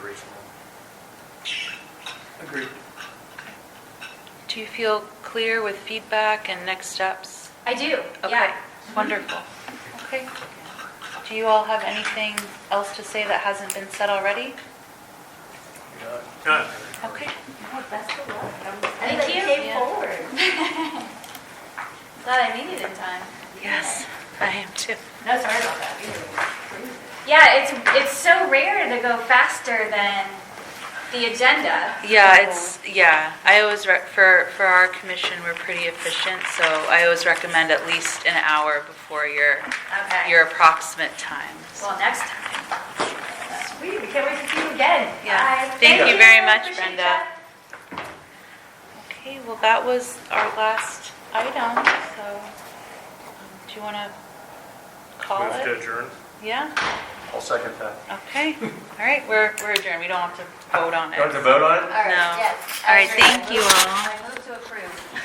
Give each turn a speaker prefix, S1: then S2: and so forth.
S1: Agreed.
S2: Do you feel clear with feedback and next steps?
S3: I do,
S2: Okay, Mm-hmm.
S3: yeah.
S2: Wonderful. Okay. Do you all have anything else to say that hasn't been said already?
S1: Good.
S2: Okay.
S3: Oh, Best of luck. I'm
S2: Thank
S3: glad that
S2: you.
S3: came
S2: Yeah.
S3: forward. Glad I made it in time.
S2: Yes, I am too.
S3: No, sorry about that. We were crazy. Yeah, it's, it's so rare to go faster than the agenda.
S2: Yeah, it's, yeah, I always, rec- for, for our commission, we're pretty efficient, so I always recommend at least an hour before your,
S3: Okay.
S2: your approximate times.
S3: Well, next time. Sweet, we can't wait to see you again.
S2: Yeah.
S3: Bye.
S2: Thank you very much,
S3: Appreciate
S2: Brenda.
S3: ya.
S2: Okay, well, that was our last item, so um, do you want to call
S1: Move to
S2: it?
S1: adjourn.
S2: Yeah,
S1: I'll second that.
S2: okay, all right, we're, we're adjourned, we don't have to vote on it.
S1: Do I have to vote on it?
S3: All right,
S2: No.
S3: yes.
S2: All right,
S3: Actually, I
S2: thank you
S3: move-
S2: all.
S3: I move to approve.